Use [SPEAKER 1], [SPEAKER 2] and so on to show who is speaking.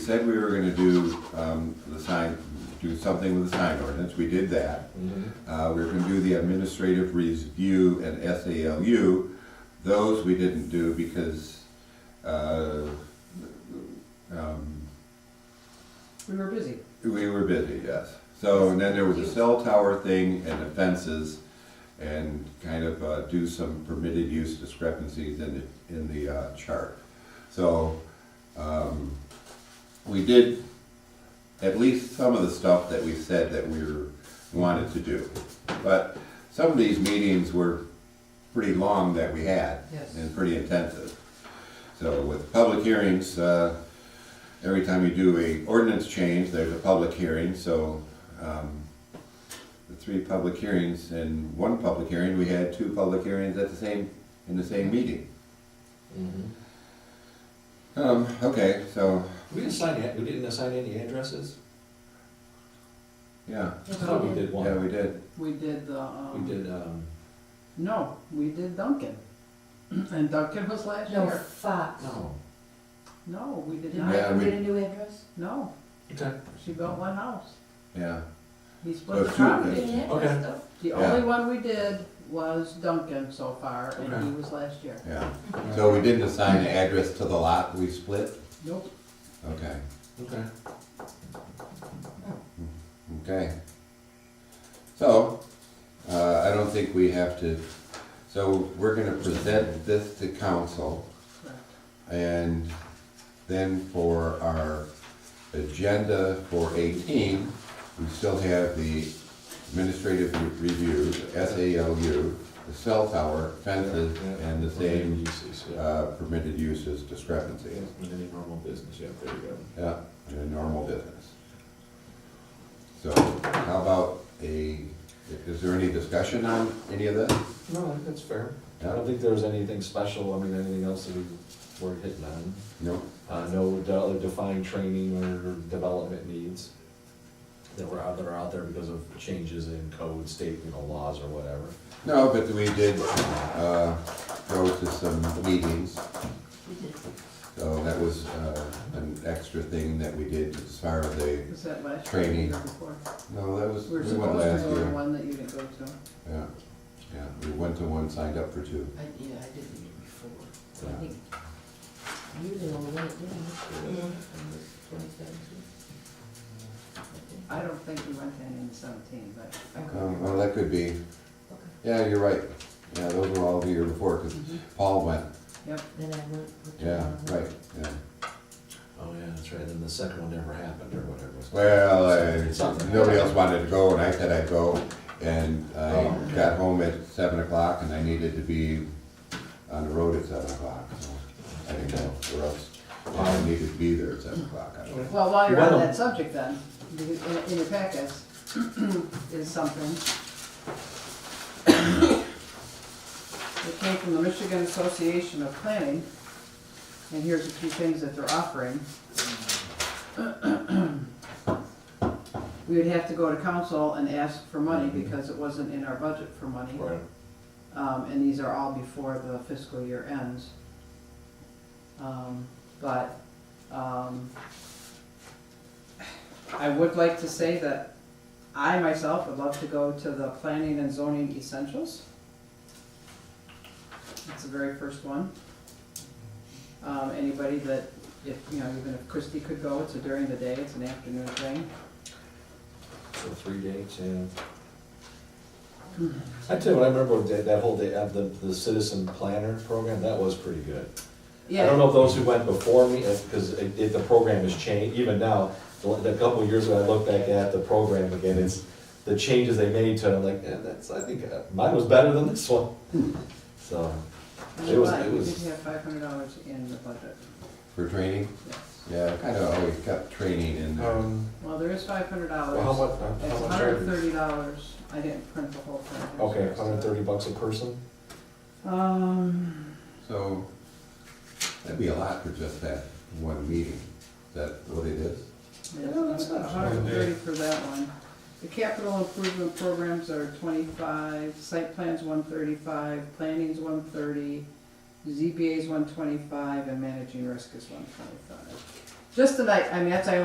[SPEAKER 1] Said we were gonna do, um, the sign, do something with the sign ordinance, we did that. Uh, we were gonna do the administrative review and SALU, those we didn't do because, uh, um,
[SPEAKER 2] We were busy.
[SPEAKER 1] we were busy, yes. So, and then there was a cell tower thing and the fences and kind of, uh, do some permitted use discrepancies in the, in the, uh, chart. So, um, we did at least some of the stuff that we said that we were, wanted to do. But some of these meetings were pretty long that we had.
[SPEAKER 2] Yes.
[SPEAKER 1] And pretty intensive. So with public hearings, uh, every time you do a ordinance change, there's a public hearing, so, um, the three public hearings and one public hearing, we had two public hearings at the same, in the same meeting. Mm-hmm. Um, okay, so,
[SPEAKER 3] We didn't sign, it- we didn't assign any addresses?
[SPEAKER 1] yeah,
[SPEAKER 3] I thought we did
[SPEAKER 1] yeah,
[SPEAKER 3] one.
[SPEAKER 1] we did.
[SPEAKER 2] We did the, um.
[SPEAKER 3] We did, um,
[SPEAKER 2] No, we did Duncan. And Duncan was last
[SPEAKER 4] No,
[SPEAKER 2] year.
[SPEAKER 4] Fox.
[SPEAKER 3] no.
[SPEAKER 2] No, we did
[SPEAKER 4] Did
[SPEAKER 2] not.
[SPEAKER 4] I
[SPEAKER 1] Yeah,
[SPEAKER 4] ever
[SPEAKER 1] we-
[SPEAKER 4] get a new address?
[SPEAKER 2] No,
[SPEAKER 3] Okay.
[SPEAKER 2] she built one house.
[SPEAKER 1] Yeah,
[SPEAKER 2] He
[SPEAKER 1] Oh,
[SPEAKER 2] split the
[SPEAKER 1] two.
[SPEAKER 2] property.
[SPEAKER 4] Didn't have
[SPEAKER 3] Okay.
[SPEAKER 4] stuff.
[SPEAKER 2] The
[SPEAKER 1] Yeah.
[SPEAKER 2] only one we did was Duncan so far, and
[SPEAKER 3] Okay.
[SPEAKER 2] he was last year.
[SPEAKER 1] yeah. So we didn't assign the address to the lot we split?
[SPEAKER 2] Nope.
[SPEAKER 1] Okay,
[SPEAKER 3] Okay.
[SPEAKER 1] okay. So, uh, I don't think we have to, so we're gonna present this to council.
[SPEAKER 2] Correct.
[SPEAKER 1] And then for our agenda for eighteen, we still have the administrative re- review, the SALU, the cell tower, fences,
[SPEAKER 3] Yeah.
[SPEAKER 1] and the same
[SPEAKER 3] Uses, yeah.
[SPEAKER 1] uh, permitted uses discrepancy.
[SPEAKER 3] Yeah, with any normal business, yeah, there you go.
[SPEAKER 1] Yeah, in a normal business. So how about a, is there any discussion on any of this?
[SPEAKER 3] No, I think that's fair. I
[SPEAKER 1] Yeah.
[SPEAKER 3] don't think there was anything special, I mean, anything else that we were hitting on.
[SPEAKER 1] No?
[SPEAKER 3] Uh, no de- defined training or development needs that were out, that are out there because of changes in code, state, you know, laws or whatever.
[SPEAKER 1] No, but we did, uh, go to some meetings.
[SPEAKER 4] We did.
[SPEAKER 1] So that was, uh, an extra thing that we did as far as the,
[SPEAKER 2] Was that last year? or the
[SPEAKER 1] Training.
[SPEAKER 2] year before?
[SPEAKER 1] no, that was,
[SPEAKER 2] We were
[SPEAKER 1] we went
[SPEAKER 2] supposed
[SPEAKER 1] last
[SPEAKER 2] to go to
[SPEAKER 1] year.
[SPEAKER 2] one that you didn't go to.
[SPEAKER 1] Yeah, yeah, we went to one, signed up for two.
[SPEAKER 4] I, yeah, I did it before. I think you the only one that did it. On the 27th.
[SPEAKER 2] I don't think we went to any in seventeen, but I could.
[SPEAKER 1] Um, well, that could be,
[SPEAKER 4] Okay.
[SPEAKER 1] yeah, you're right. Yeah, those were all the year before, cause
[SPEAKER 2] Mhm.
[SPEAKER 1] Paul went,
[SPEAKER 2] Yep,
[SPEAKER 4] Then I went. with the uh,
[SPEAKER 1] yeah,
[SPEAKER 4] wrong one.
[SPEAKER 1] right, yeah.
[SPEAKER 3] Oh, yeah, that's right, and then the second one never happened or whatever.
[SPEAKER 1] Well, I,
[SPEAKER 3] Something.
[SPEAKER 1] nobody else wanted to go, and I said I'd go, and
[SPEAKER 3] Oh,
[SPEAKER 1] I
[SPEAKER 3] okay.
[SPEAKER 1] got home at seven o'clock, and I needed to be on the road at seven o'clock, so I didn't go, or else I needed to be there at seven o'clock. I don't-
[SPEAKER 2] Well, while you're on
[SPEAKER 3] Well-
[SPEAKER 2] that subject then, because in, in your packets is something. It came from the Michigan Association of Planning, and here's a few things that they're offering. We would have to go to council and ask for money because it wasn't in our budget for money.
[SPEAKER 3] Right,
[SPEAKER 2] Um, and these are all before the fiscal year ends. Um, but, um, I would like to say that I myself would love to go to the planning and zoning essentials. That's the very first one. Um, anybody that, if, you know, even if Christie could go, it's a during the day, it's an afternoon thing.
[SPEAKER 3] so three dates, yeah. I tell you what, I remember that, that whole day, uh, the, the citizen planner program, that was pretty good. I don't
[SPEAKER 2] Yeah,
[SPEAKER 3] know if those who went before me, because it, it- the program has changed, even now, the the couple of years ago, I look back at the program again, it's the changes they made to it, I'm like, eh, that's, I think uh, mine was better than this one. So,
[SPEAKER 2] and
[SPEAKER 3] it was-
[SPEAKER 2] why?
[SPEAKER 3] it
[SPEAKER 2] we
[SPEAKER 3] was-
[SPEAKER 2] did have five hundred dollars in the budget,
[SPEAKER 1] For training,
[SPEAKER 2] yes.
[SPEAKER 1] yeah, I kinda always kept training in there.
[SPEAKER 3] um,
[SPEAKER 2] Well, there is five hundred dollars.
[SPEAKER 3] well, how much, uh,
[SPEAKER 2] It's
[SPEAKER 3] how much?
[SPEAKER 2] hundred and
[SPEAKER 3] are-
[SPEAKER 2] thirty dollars, I didn't print the whole thing.
[SPEAKER 3] Okay, hundred and thirty bucks a person?
[SPEAKER 2] Um,
[SPEAKER 1] So, that'd be a lot for just that one meeting, Is that what it is?
[SPEAKER 3] No, that's not
[SPEAKER 2] hundred and thirty for that one. The capital improvement programs are twenty-five, site plans one thirty-five, planning's one thirty, ZBA's one twenty-five, and managing risk is one twenty-five. just tonight, I mean, that's, I